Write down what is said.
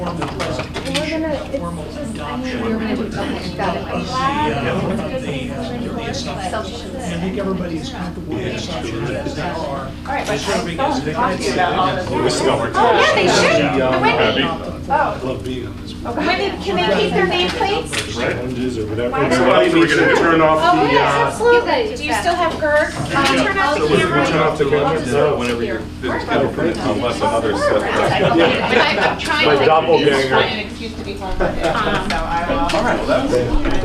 formal adoption. You're gonna do- okay, got it. I'm Yeah, glad. the, the assumption, I think everybody is comfortable with the assumption that there are. All right, but I serving don't as talk to you about all this. We still got more. Oh, yeah, they Yeah. should. Yeah. Wendy. Happy. Oh, Love being on this. board. Wendy, can they keep their name, please? Right? Challenges or whatever. Why not? Everybody, we're gonna turn off Oh, the, yes, uh. absolutely. Do you still have GERD? Uh, Turn off the so we camera. turn off the camera, so whenever you, unless another stuff. But I'm I'm trying My to, it's doppelganger. an excuse to be home. Um, So I will. All right, well, that was.